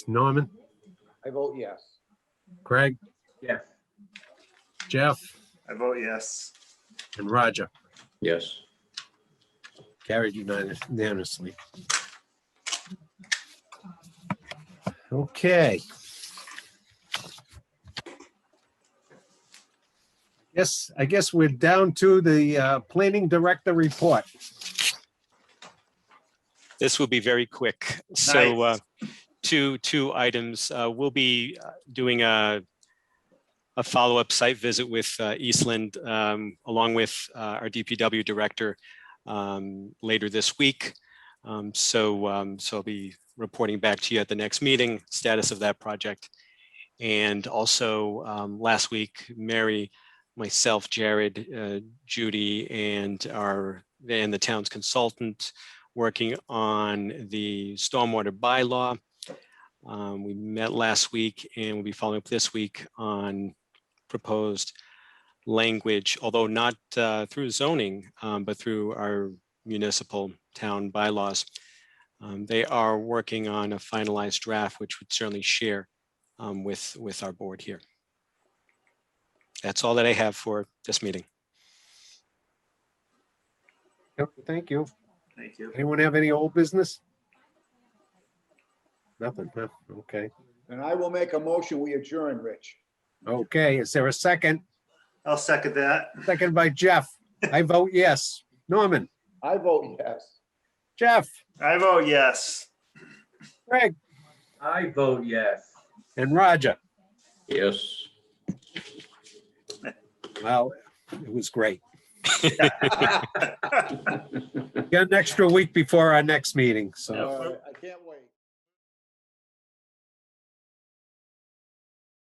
Norman, I vote yes. Craig, Yes. Jeff, I vote yes. and Roger. Yes. Carried unanimous- unanimously. Okay. Yes, I guess we're down to the uh, planning director report. this will be very quick. So uh, two, two items. Uh, We'll be uh, doing a, a follow-up site visit with uh, Eastland um, along with uh, our DPW director um, later this week. Um, So, um, so I'll be reporting back to you at the next meeting, status of that project. And also, um, last week, Mary, myself, Jared, uh, Judy, and our, and the town's consultant working on the stormwater bylaw. Um, We met last week and we'll be following up this week on proposed language, although not uh, through zoning, um, but through our municipal town bylaws. Um, They are working on a finalized draft, which would certainly share um, with, with our board here. That's all that I have for this meeting. Yep, Thank you. Thank you. Anyone have any old business? Nothing, huh? Okay. And I will make a motion, we adjourn, Rich. Okay, is there a second? I'll second that. Second by Jeff. I vote yes. Norman, I vote yes. Jeff, I vote yes. Craig, I vote yes. and Roger. Yes. Well, it was great. Got an extra week before our next meeting, so. Uh, I can't wait.